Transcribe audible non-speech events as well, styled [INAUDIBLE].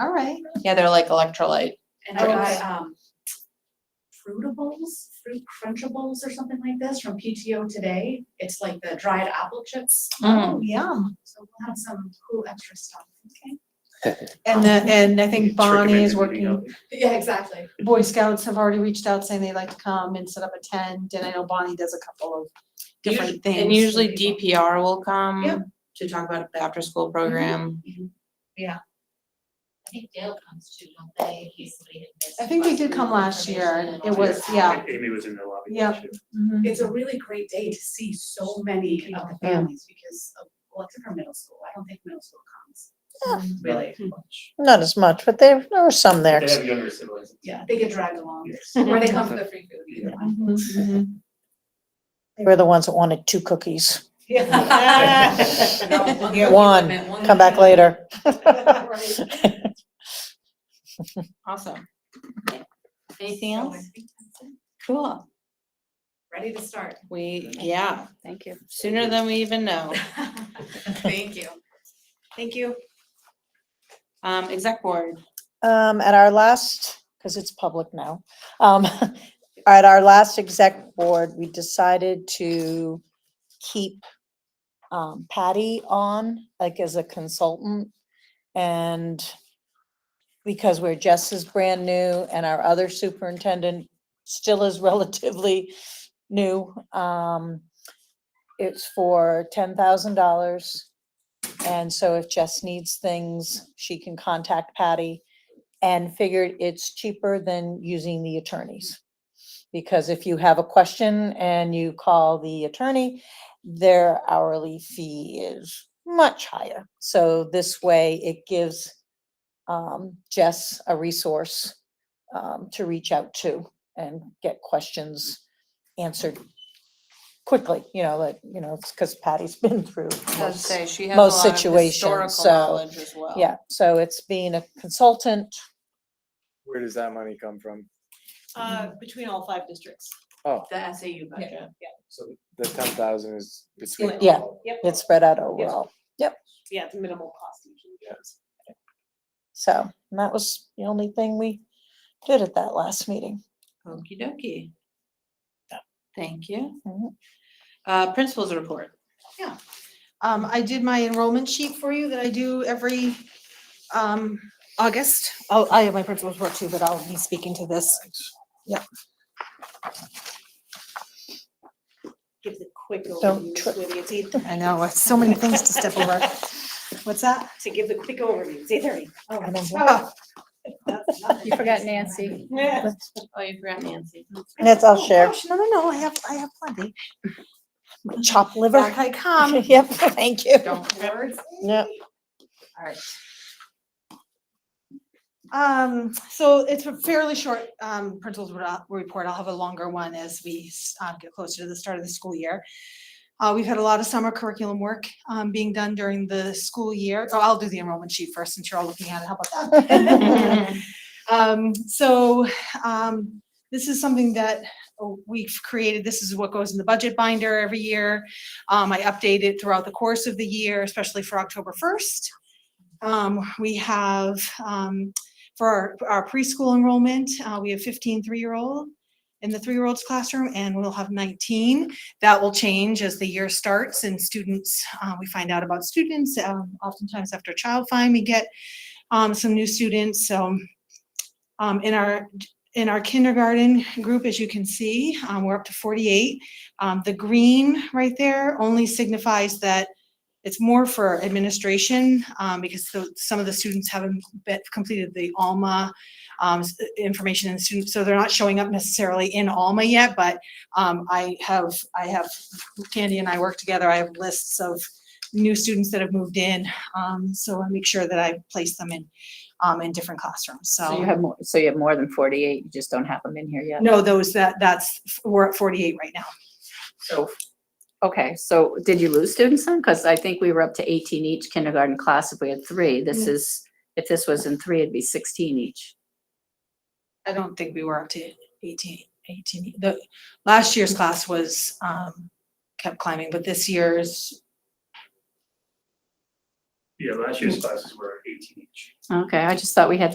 right. Yeah, they're like electrolyte. And I Okay. got, um, fruitables, fruit crunchables or something like this from PTO today. It's like the dried apple chips. Mm. So Yeah, we'll have some cool extra stuff, okay? and the, and I think It's recommended Bonnie is eating working, healthy. Yeah, exactly. Boy Scouts have already reached out saying they'd like to come and set up a tent, and I know Bonnie does a couple of different things. And usually for people. DPR will come Yep. to talk about the after school program. I think Dale comes too, don't they, in case somebody had missed. I think they did come last year, information it and all was, that. yeah. Amy was in the lobby. Yeah. Mhm. It's a really great day to see so many of the Yeah. families because of, well, except for middle school. I don't think middle school comes. Really, Not as much, but there, there were some They there. 'cause have younger siblings. yeah, they get dragged along Yes. or they come for [LAUGHS] the free food. either one. Mhm, mhm. They were the ones that wanted two cookies. [LAUGHS] No, one Get one, commitment, one Come back commitment. later. Right. Awesome. Anything So I else? think that's it. Cool. Ready to start. We, yeah. Thank you. Sooner than we even know. Thank you. Thank you. Um, exec board. Um, at our last, because it's public now, um, [LAUGHS] at our last exec board, we decided to keep um, Patty on, like as a consultant. And because where Jess is brand new and our other superintendent still is [LAUGHS] relatively new, um, it's for ten thousand dollars. And so if Jess needs things, she can contact Patty and figured it's cheaper than using the attorneys. Because if you have a question and you call the attorney, their hourly fee is much higher. So this way it gives um, Jess a resource um, to reach out to and get questions answered quickly, you know, like, you know, it's because Patty's [LAUGHS] been through. Let's most- say she has a most lot of situations, historical so, knowledge as well. Yeah, so it's being a consultant. Where does that money come from? Uh, between all five districts. Oh, The SAU budget. so the ten thousand is between. split. Yeah. all. Yep, It's spread out over all. yeah, it's minimal cost usually. So and that was the only thing we did at that last meeting. Okey dokey. Thank you. Mhm. Uh, principals [LAUGHS] report. Um, I did my enrollment sheet for you that I do every, um, August. Oh, I have my principal's work too, but I'll be speaking to this. Yep. Gives a quick Don't overview, trip. It's either. I know, it's so many things to step over. What's that? To give the quick overview, it's either. I don't know. Oh, Oh, You forgot Nancy. [LAUGHS] yeah. Oh, you forgot Nancy. And it's all shared. Oh, Gosh, No, no, no, I have, I have plenty. Chop liver. Back I come. [LAUGHS] Yep, thank you. Don't worry. Yep. Um, so it's a fairly short, um, principals re- report. I'll have a longer one as we, s- uh, get closer to the start of the school year. Uh, we've had a lot of summer curriculum work, um, being done during the school year. Oh, I'll do the enrollment sheet first since you're all looking at it. How about [LAUGHS] that? Um, so, um, this is something that uh, we've created. This is what goes in the budget binder every year. Um, I update it throughout the course of the year, especially for October first. Um, we have, um, for our, our preschool enrollment, uh, we have 15 3 three-year-old in the three-year-olds classroom, and we'll have nineteen. That will change as the year starts and students, uh, we find out about students, um, oftentimes after child find, we get, um, some new students, so um, in our, in our kindergarten group, as you can see, um, we're up to forty-eight. Um, the green right there only signifies that it's more for administration, um, because so- some of the students haven't be- completed the Alma um, s- information and students, so they're not showing up necessarily in Alma yet, but um, I have, I have, Candy and I work together, I have lists of new students that have moved in, um, so I make sure that I place them in, um, in different classrooms, So you have more, so you have more than forty-eight, you just don't have them in here yet. No, those, that, that's, we're at forty-eight right now. So, okay, so did you lose students then? Because I think we were up to eighteen each kindergarten class if we had three. This is, if this was in three, it'd be sixteen each. I don't think we were up to 18, 18. The, last year's class was, um, kept climbing, but this year's, Yeah, last year's classes were eighteen each. Okay, I just thought we had